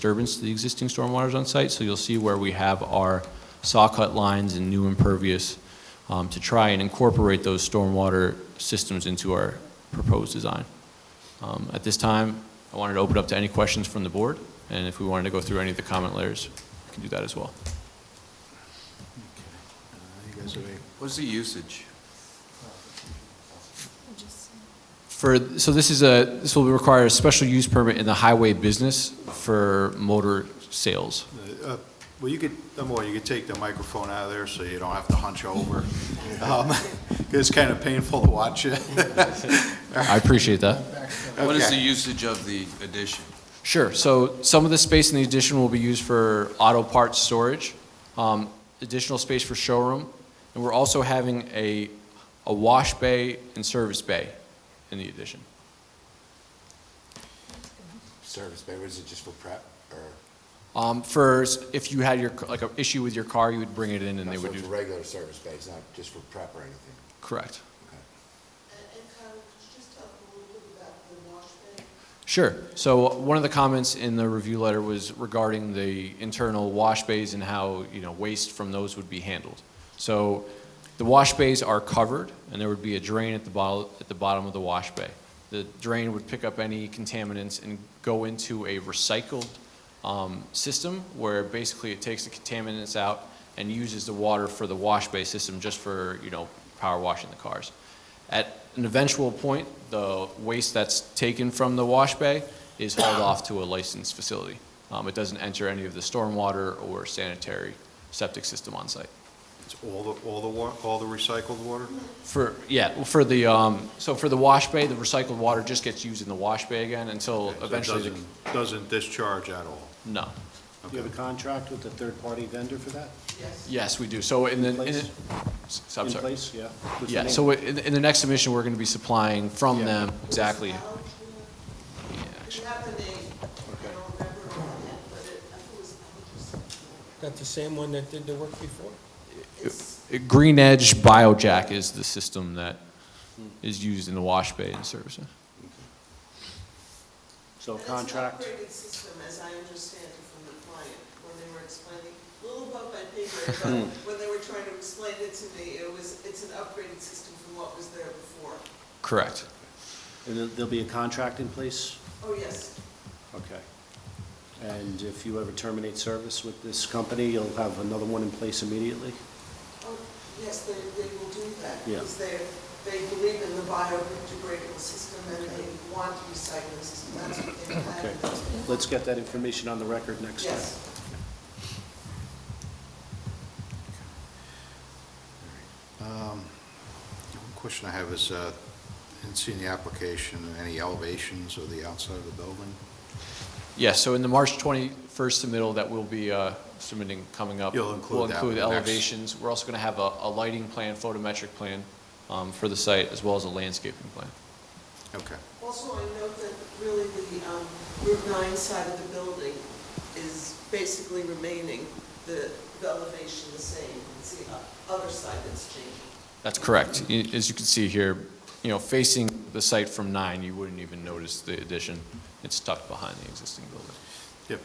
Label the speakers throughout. Speaker 1: disturbance to the existing stormwaters on site, so you'll see where we have our saw cut lines and new impervious um, to try and incorporate those stormwater systems into our proposed design. Um, At this time, I wanted to open up to any questions from the board, and if we wanted to go through any of the comment layers, we can do that as well.
Speaker 2: You guys are ready?
Speaker 3: What's the usage?
Speaker 1: For, so this is a, this will require a special use permit in the highway business for motor sales.
Speaker 2: Uh, Well, you could, number one, you could take the microphone out of there so you don't have to hunch over. Um, It's kind of painful to watch it.
Speaker 1: I appreciate that.
Speaker 3: What is the
Speaker 2: Okay.
Speaker 3: usage of the addition?
Speaker 1: Sure. So some of the space in the addition will be used for auto parts storage, um, additional space for showroom, and we're also having a, a wash bay and service bay in the addition.
Speaker 4: service bay, was it just for prep, or?
Speaker 1: Um, for s- if you had your c- like an issue with your car, you would bring it in and they
Speaker 4: So
Speaker 1: would
Speaker 4: it's a
Speaker 1: do
Speaker 4: regular service bay, it's not just for prep or anything?
Speaker 1: correct.
Speaker 4: Okay.
Speaker 5: And and Kyle, could you just talk a little bit about the wash bay?
Speaker 1: Sure. So one of the comments in the review letter was regarding the internal wash bays and how, you know, waste from those would be handled. So the wash bays are covered, and there would be a drain at the bottom, at the bottom of the wash bay. The drain would pick up any contaminants and go into a recycled um, system where basically it takes the contaminants out and uses the water for the wash bay system just for, you know, power washing the cars. At an eventual point, the waste that's taken from the wash bay is hauled off to a licensed facility. Um, It doesn't enter any of the stormwater or sanitary septic system on site.
Speaker 2: It's all the, all the, wa- all the recycled water?
Speaker 1: For, yeah, well, for the, um, so for the wash bay, the recycled water just gets used in the wash bay again until
Speaker 2: Okay, so it
Speaker 1: eventually, the-
Speaker 2: doesn't- Doesn't discharge at all?
Speaker 1: no.
Speaker 6: Do you have a contract with a third-party vendor for that?
Speaker 1: Yes, we do. So in the, in the-
Speaker 6: place?
Speaker 1: s- I'm
Speaker 6: In
Speaker 1: sorry.
Speaker 6: place, yeah? Who's the
Speaker 1: Yeah,
Speaker 6: name?
Speaker 1: so in, in the next submission, we're going to be supplying from
Speaker 6: Yeah.
Speaker 1: them exactly.
Speaker 5: Kyle, do you
Speaker 1: Yeah,
Speaker 5: do you have the name? I don't remember all that, but it, I think it was, I think it was-
Speaker 7: That the same one that did the work before?
Speaker 1: Green Edge BioJack is the system that is used in the wash bay and service.
Speaker 6: So a
Speaker 5: and
Speaker 6: contract,
Speaker 5: It's an upgraded system, as I understand it from the client, when they were explaining, a little above my pay grade, but when they were trying to explain it to me, it was, it's an upgraded system from what was there before.
Speaker 1: Correct.
Speaker 6: and there- there'll be a contract in place?
Speaker 5: Oh, yes,
Speaker 6: Okay. And if you ever terminate service with this company, you'll have another one in place immediately?
Speaker 5: oh, yes, they, they will do that.
Speaker 6: Yeah.
Speaker 5: Because they, they believe in the biodegradable system and they want recycling system, that's what they have.
Speaker 6: Okay. Let's get that information on the record next time.
Speaker 5: Yes.
Speaker 2: Um, One question I have is, uh, I didn't see any application, any elevations of the outside of the building?
Speaker 1: Yes, so in the March 21st submittal that we'll be uh, submitting coming up.
Speaker 2: You'll include that
Speaker 1: We'll include
Speaker 2: with the next-
Speaker 1: elevations. We're also going to have a, a lighting plan, photometric plan um, for the site, as well as a landscaping plan.
Speaker 2: Okay.
Speaker 5: Also, I note that really the um, Route 9 side of the building is basically remaining, the the elevation the same. It's the o- other side that's changing.
Speaker 1: That's correct. Y- As you can see here, you know, facing the site from nine, you wouldn't even notice the addition. It's tucked behind the existing building.
Speaker 2: Yep.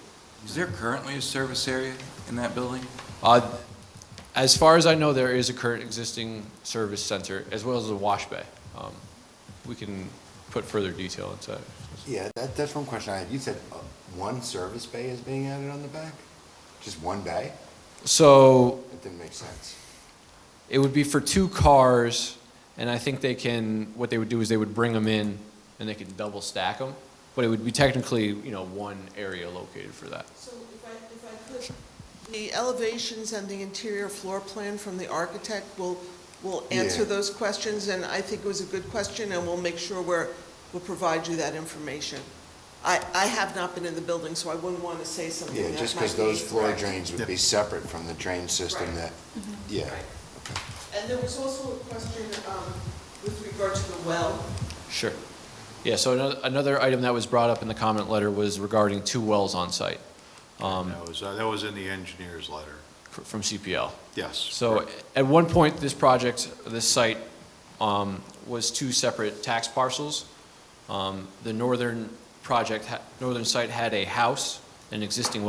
Speaker 3: Is there currently a service area in that building?
Speaker 1: Uh, As far as I know, there is a current existing service center, as well as a wash bay. Um, We can put further detail into it.
Speaker 4: Yeah, that, that's one question I had, you said uh, one service bay is being added on the back? Just one bay?
Speaker 1: So
Speaker 4: That didn't make sense.
Speaker 1: it would be for two cars, and I think they can, what they would do is they would bring them in, and they could double stack them, but it would be technically, you know, one area located for that.
Speaker 5: So if I, if I could, the elevations and the interior floor plan from the architect will, will answer
Speaker 4: Yeah.
Speaker 5: those questions, and I think it was a good question, and we'll make sure we're, we'll provide you that information. I, I have not been in the building, so I wouldn't want to say something
Speaker 4: Yeah,
Speaker 5: that
Speaker 4: just
Speaker 5: might
Speaker 4: because
Speaker 5: be
Speaker 4: those floor
Speaker 5: incorrect.
Speaker 4: drains would be separate from the drain system
Speaker 5: Right. Mm-hmm.
Speaker 4: that, yeah.
Speaker 5: Right. And there was also a question um, with regard to the well.
Speaker 1: Sure. Yeah, so another, another item that was brought up in the comment letter was regarding two wells on site um,
Speaker 2: That was, uh, that was in the engineer's letter.
Speaker 1: fr- from CPL.
Speaker 2: Yes.
Speaker 1: So at one point, this project, this site, um, was two separate tax parcels. Um, The northern project, ha- northern site had a house, and an existing